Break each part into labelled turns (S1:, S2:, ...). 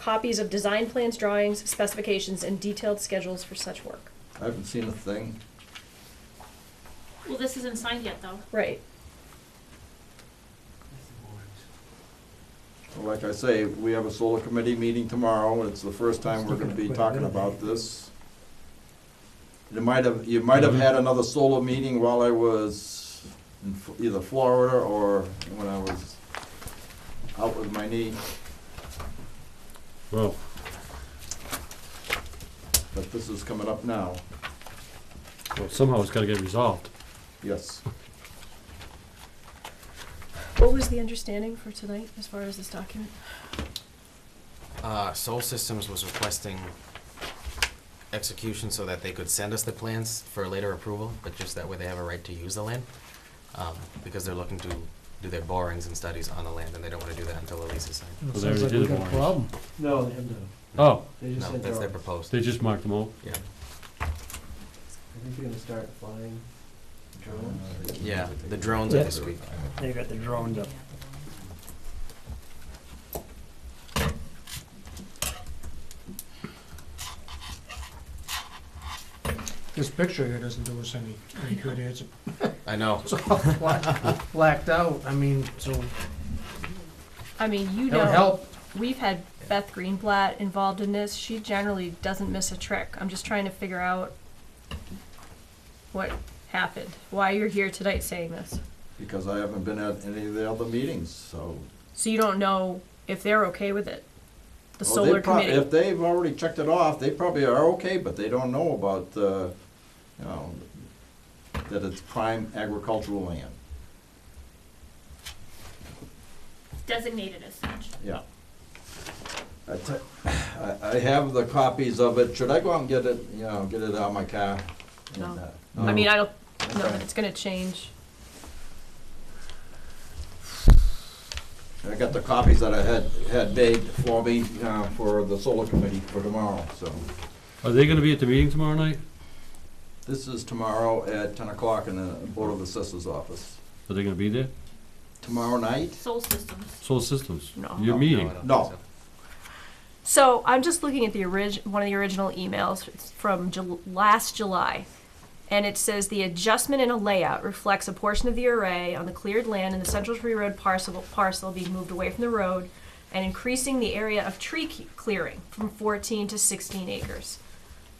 S1: copies of design plans, drawings, specifications, and detailed schedules for such work.
S2: I haven't seen a thing.
S3: Well, this isn't signed yet, though.
S1: Right.
S2: Well, Like I say, we have a solar committee meeting tomorrow, it's the first time we're gonna be talking about this. You might have, you might have had another solar meeting while I was in F- either Florida or when I was out with my knee,
S4: Well,
S2: but this is coming up now,
S4: well, somehow it's gotta get resolved.
S2: yes.
S1: What was the understanding for tonight as far as this document?
S5: Uh, Soul Systems was requesting execution so that they could send us the plans for later approval, but just that way they have a right to use the land. Um, because they're looking to do their borings and studies on the land, and they don't wanna do that until the lease is signed.
S4: Well, they
S6: Sounds like
S4: already did
S6: we
S4: it
S6: got a
S4: once.
S6: problem.
S7: No, they have no.
S4: Oh,
S7: They just
S5: No,
S7: said
S5: that's
S7: they're,
S5: their
S7: I
S5: proposed,
S4: they just marked them all.
S5: yeah.
S7: think they're gonna start flying drones.
S5: Yeah, the drones are
S6: Yeah.
S5: this week.
S6: They got the drones up. This picture here doesn't do us any, any good, it's
S5: I know,
S6: it's all black- blacked out, I mean, so,
S1: I mean, you
S6: that would
S1: know,
S6: help.
S1: we've had Beth Greenblatt involved in this. She generally doesn't miss a trick. I'm just trying to figure out what happened, why you're here tonight saying this.
S2: Because I haven't been at any of the other meetings, so.
S1: So you don't know if they're okay with it. The
S2: Well, they
S1: solar
S2: prob-
S1: committee.
S2: If they've already checked it off, they probably are okay, but they don't know about, uh, you know, that it's prime agricultural land,
S3: Designated as such.
S2: yeah. I te- I- I have the copies of it, should I go out and get it, you know, get it out of my car? And,
S1: No.
S2: uh,
S1: I mean, I don't know
S2: Okay.
S1: that it's gonna change.
S2: I got the copies that I had, had made for me, uh, for the solar committee for tomorrow, so.
S4: Are they gonna be at the meeting tomorrow night?
S2: This is tomorrow at ten o'clock in the Board of Assessors office.
S4: Are they gonna be there?
S2: Tomorrow night?
S3: Soul Systems.
S4: Soul Systems?
S1: No.
S4: Your meeting?
S2: No.
S1: So I'm just looking at the orig- one of the original emails from Jul- last July, and it says the adjustment in a layout reflects a portion of the array on the cleared land in the Central Tree Road parcel, parcel being moved away from the road and increasing the area of tree ke- clearing from 14 to 16 acres.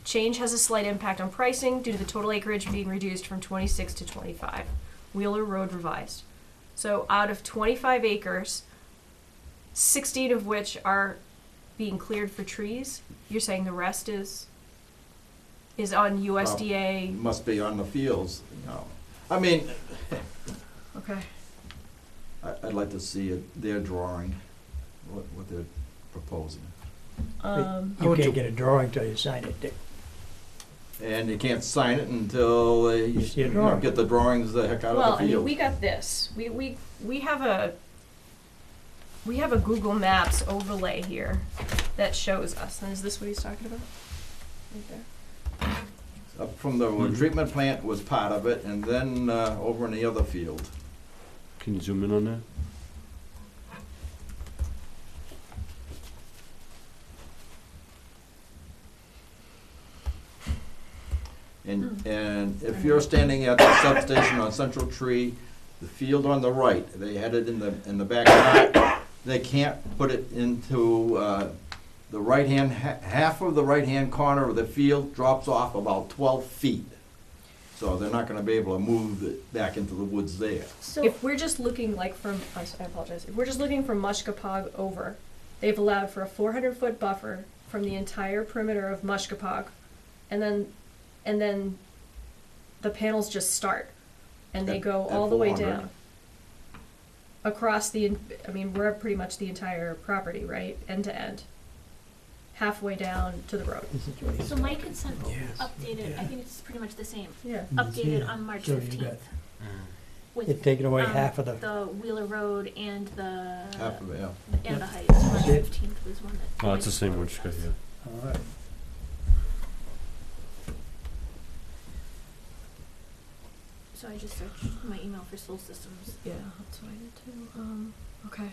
S1: Change has a slight impact on pricing due to the total acreage being reduced from 26 to 25. Wheeler Road revised. So out of 25 acres, 16 of which are being cleared for trees. You're saying the rest is is on
S2: It
S1: USDA.
S2: must be on the fields, you know. I mean,
S1: Okay.
S2: I, I'd like to see it, their drawing, what, what they're proposing.
S1: Um,
S6: You can't get a drawing till you sign it, Dick.
S2: And you can't sign it until they,
S6: You see a
S2: you know,
S6: drawing.
S2: get the drawings the heck out
S1: well,
S2: of
S1: I
S2: the
S1: mean,
S2: field.
S1: we got this. We we we have a we have a Google Maps overlay here that shows us. And is this what he's talking about? Right there.
S2: Up From
S6: Mm-hmm.
S2: the treatment plant was part of it, and then, uh, over in the other field.
S4: Can you zoom in on that?
S2: And, and if you're standing at the substation on Central Tree, the field on the right, they had it in the, in the back. They can't put it into, uh, the right-hand, ha- half of the right-hand corner of the field drops off about twelve feet. So they're not gonna be able to move it back into the woods there.
S3: So,
S1: If we're just looking like from, I s- I apologize, if we're just looking from Mushkapog over, they've allowed for a four hundred foot buffer from the entire perimeter of Mushkapog. And then, and then the panels just start and they
S2: At-
S1: go
S2: at
S1: all the way
S2: 400.
S1: down. Across the, en- I mean, we're pretty much the entire property, right, end to end. Halfway down to the road.
S3: so Mike had sent
S6: Yes.
S3: updated, I
S6: Yeah. Mm-hmm.
S3: think it's pretty much the same,
S1: Yeah.
S3: updated
S6: Yeah.
S3: on March
S6: So you
S3: fifteenth.
S6: They're
S3: With
S6: taking away
S3: um,
S6: half of the,
S3: the Wheeler Road and the,
S2: Half of it, yeah.
S3: and the Heights, March
S6: That's it.
S3: fifteenth was one that.
S4: Oh, it's the same one she got here.
S6: all right.
S3: So I just searched my email for Soul Systems.
S1: Yeah, that's what I did too, um, okay.